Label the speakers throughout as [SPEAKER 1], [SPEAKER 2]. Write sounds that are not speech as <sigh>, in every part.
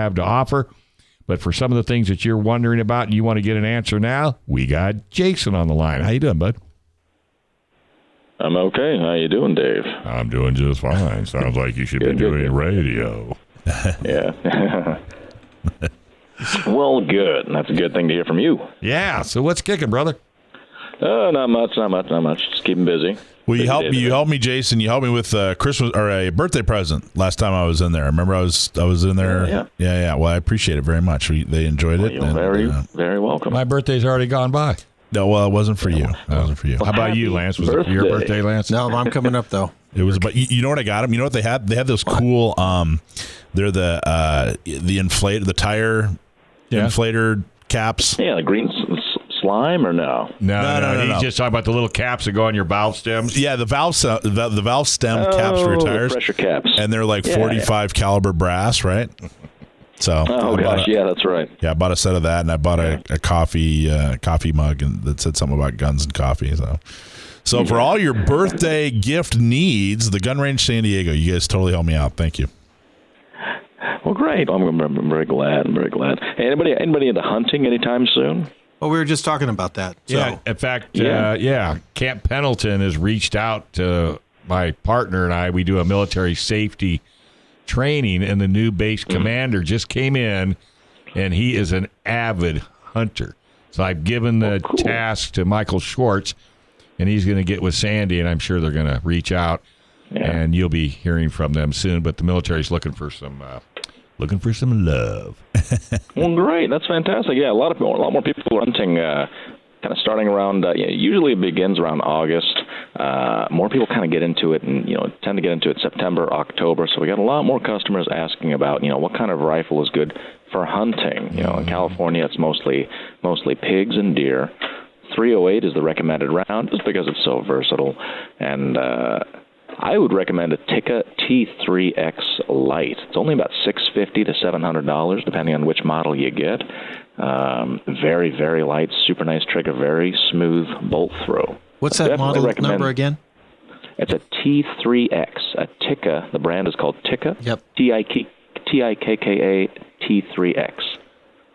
[SPEAKER 1] have to offer. But for some of the things that you're wondering about and you want to get an answer now, we got Jason on the line. How you doing, bud?
[SPEAKER 2] I'm okay. How you doing, Dave?
[SPEAKER 1] I'm doing just fine. Sounds like you should
[SPEAKER 2] Good, good, good.
[SPEAKER 1] radio.
[SPEAKER 2] Yeah. <laughs> well, good. That's a good thing to hear from you.
[SPEAKER 1] Yeah. So what's kicking, brother?
[SPEAKER 2] Uh, not much, not much, not much. Just keeping busy.
[SPEAKER 3] Well, you
[SPEAKER 2] Busy
[SPEAKER 3] helped
[SPEAKER 2] day
[SPEAKER 3] me. You
[SPEAKER 2] today.
[SPEAKER 3] helped me, Jason. You helped me with a Christmas or a birthday present last time I was in there. I remember I was I was in there.
[SPEAKER 2] Yeah, yeah.
[SPEAKER 3] yeah. yeah. Well, I appreciate it very much. We, they enjoyed it.
[SPEAKER 2] You're very,
[SPEAKER 3] uh,
[SPEAKER 2] very welcome.
[SPEAKER 1] My birthday's already gone by.
[SPEAKER 3] no, well, it wasn't for you. It wasn't for you.
[SPEAKER 1] How about you,
[SPEAKER 2] Happy
[SPEAKER 1] Lance? Was it your
[SPEAKER 2] birthday.
[SPEAKER 1] birthday, Lance?
[SPEAKER 4] No, I'm coming up though.
[SPEAKER 3] It was, but you, you know what I got them. You know what they had? They had those cool. Um, they're the uh the inflate the tire
[SPEAKER 1] Yeah.
[SPEAKER 3] inflator caps.
[SPEAKER 2] Yeah, the green s- s- slime or no?
[SPEAKER 1] No, no,
[SPEAKER 3] No, no, no,
[SPEAKER 1] He's
[SPEAKER 3] no.
[SPEAKER 1] just talking about the little caps that go on your valve stems.
[SPEAKER 3] Yeah, the valve se- the, the valve stem caps for your
[SPEAKER 2] Oh,
[SPEAKER 3] tires,
[SPEAKER 2] Pressure caps.
[SPEAKER 3] and they're like
[SPEAKER 2] Yeah, yeah.
[SPEAKER 3] 45 caliber brass, right? So
[SPEAKER 2] oh,
[SPEAKER 3] I bought
[SPEAKER 2] gosh.
[SPEAKER 3] a-
[SPEAKER 2] Yeah, that's right.
[SPEAKER 3] Yeah, I bought a set of that, and I bought a, a coffee uh, coffee mug and that said something about guns and coffee. So, so for all your birthday gift needs, the Gun Range San Diego, you guys totally helped me out. Thank you.
[SPEAKER 2] Well, great. I'm, I'm very glad. I'm very glad. Hey, anybody, anybody into hunting anytime soon?
[SPEAKER 4] Well, we were just talking about that. So.
[SPEAKER 1] Yeah. In fact,
[SPEAKER 2] Yeah.
[SPEAKER 1] Uh, yeah, Camp Pendleton has reached out to my partner and I. We do a military safety training, and the new base
[SPEAKER 2] Mm.
[SPEAKER 1] commander just came in, and he is an avid hunter. So I've given the
[SPEAKER 2] Oh, cool.
[SPEAKER 1] task to Michael Schwartz, and he's going to get with Sandy, and I'm sure they're going to reach out, and you'll be hearing from them soon. But the military's looking for some, uh, looking for some love.
[SPEAKER 2] Well, great. That's fantastic. Yeah, a lot of a lot more people are hunting. Uh, kind of starting around. Uh, yeah, usually it begins around August. Uh, more people kind of get into it, and you know, tend to get into it September, October. So we got a lot more customers asking about, you know, what kind of rifle is good for hunting. You know, in California, it's mostly mostly pigs and deer. 308 is the recommended round, just because it's so versatile, and. Uh, I would recommend a Tikka T3X Lite. It's only about six fifty to seven hundred dollars, depending on which model you get. Um, very, very light, super nice trigger, very smooth bolt throw.
[SPEAKER 4] What's
[SPEAKER 2] I
[SPEAKER 4] that
[SPEAKER 2] definitely
[SPEAKER 4] model
[SPEAKER 2] recommend-
[SPEAKER 4] number again?
[SPEAKER 2] It's a T3X, a Tikka. The brand is called Tikka.
[SPEAKER 4] Yep.
[SPEAKER 2] T I K T I K K A T3X.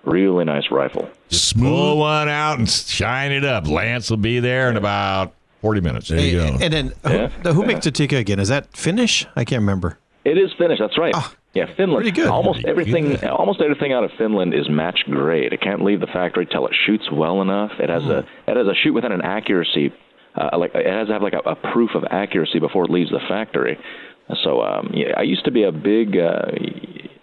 [SPEAKER 2] Really nice rifle.
[SPEAKER 1] Pull
[SPEAKER 3] Smooth.
[SPEAKER 1] one out and shine it up. Lance will be there in about 40 minutes.
[SPEAKER 3] There you
[SPEAKER 4] And-
[SPEAKER 3] go.
[SPEAKER 4] And then who, who makes the Tika again? Is that Finnish? I can't remember.
[SPEAKER 2] It is Finnish. That's right. yeah, Finland.
[SPEAKER 4] Ah, pretty good.
[SPEAKER 2] Almost
[SPEAKER 1] Pretty
[SPEAKER 2] everything,
[SPEAKER 1] good.
[SPEAKER 2] almost everything out of Finland is match grade. It can't leave the factory till it shoots well enough. It has a
[SPEAKER 4] Hmm.
[SPEAKER 2] it has a shoot within an accuracy, uh, like it has to have like a, a proof of accuracy before it leaves the factory. So um, yeah, I used to be a big, uh,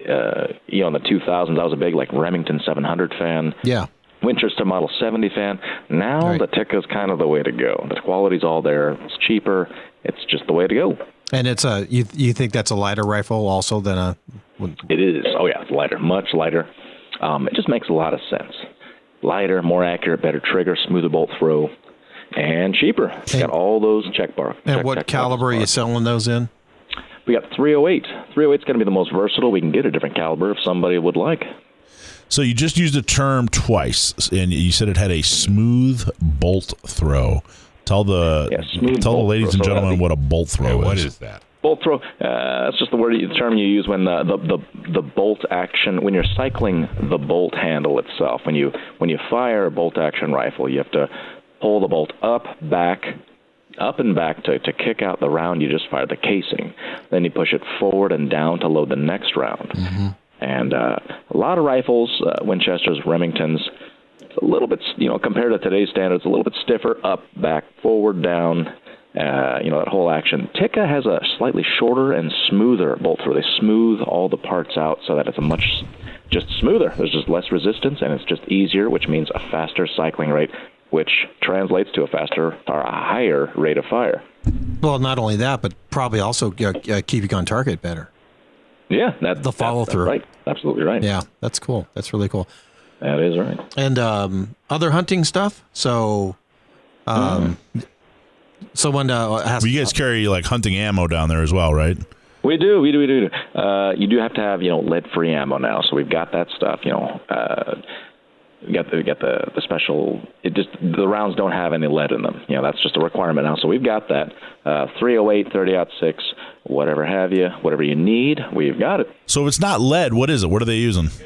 [SPEAKER 2] uh, you know, in the 2000s, I was a big like Remington 700 fan.
[SPEAKER 4] Yeah.
[SPEAKER 2] Winchester Model 70 fan. Now
[SPEAKER 4] Right.
[SPEAKER 2] the Tikka is kind of the way to go. The quality's all there. It's cheaper. It's just the way to go.
[SPEAKER 4] And it's a you you think that's a lighter rifle also than a
[SPEAKER 2] It is. Oh yeah, it's lighter, much lighter. Um, it just makes a lot of sense. Lighter, more accurate, better trigger, smoother bolt throw, and cheaper. It's got all those check bar.
[SPEAKER 4] and
[SPEAKER 2] check-
[SPEAKER 4] what
[SPEAKER 2] check
[SPEAKER 4] caliber are you
[SPEAKER 2] boxes.
[SPEAKER 4] selling those in?
[SPEAKER 2] We got 308. 308's going to be the most versatile. We can get a different caliber if somebody would like.
[SPEAKER 3] So you just used a term twice, and you said it had a smooth bolt throw. Tell the
[SPEAKER 2] Yeah, smooth
[SPEAKER 3] tell the
[SPEAKER 2] bolt
[SPEAKER 3] ladies
[SPEAKER 2] throw.
[SPEAKER 3] and
[SPEAKER 2] So that'd
[SPEAKER 3] gentlemen
[SPEAKER 2] be-
[SPEAKER 3] what a bolt throw
[SPEAKER 1] Yeah,
[SPEAKER 3] is.
[SPEAKER 1] what is that?
[SPEAKER 2] Bolt throw. Uh, that's just the word, the term you use when uh, the, the the the bolt action when you're cycling the bolt handle itself. When you when you fire a bolt action rifle, you have to pull the bolt up, back, up and back to to kick out the round you just fired, the casing. Then you push it forward and down to load the next round. And uh, a lot of rifles, uh, Winchesters, Remingtons, it's a little bit, you know, compared to today's standards, a little bit stiffer, up, back, forward, down, uh, you know, that whole action. Tikka has a slightly shorter and smoother bolt throw. They smooth all the parts out so that it's a much just smoother. There's just less resistance and it's just easier, which means a faster cycling rate, which translates to a faster or a higher rate of fire.
[SPEAKER 4] Well, not only that, but probably also uh, uh, keep you on target better.
[SPEAKER 2] Yeah, that,
[SPEAKER 4] The
[SPEAKER 2] that-
[SPEAKER 4] follow-through.
[SPEAKER 2] That's right. Absolutely right.
[SPEAKER 4] Yeah, that's cool. That's really cool.
[SPEAKER 2] That is right.
[SPEAKER 4] And um, other hunting stuff. So, um,
[SPEAKER 2] Hmm.
[SPEAKER 4] someone uh, has
[SPEAKER 3] Well, you guys carry like hunting ammo down there as well, right?
[SPEAKER 2] We do, we do, we do. Uh, you do have to have you know lead-free ammo now, so we've got that stuff. You know, uh, we got the we got the, the special. It just the rounds don't oh have any lead in them. You know, that's just a requirement now. So we've got that. Uh, 308, 30 six.
[SPEAKER 5] whatever have you, whatever you need, we've got it.
[SPEAKER 2] So if it's not lead, what is it? What are they using?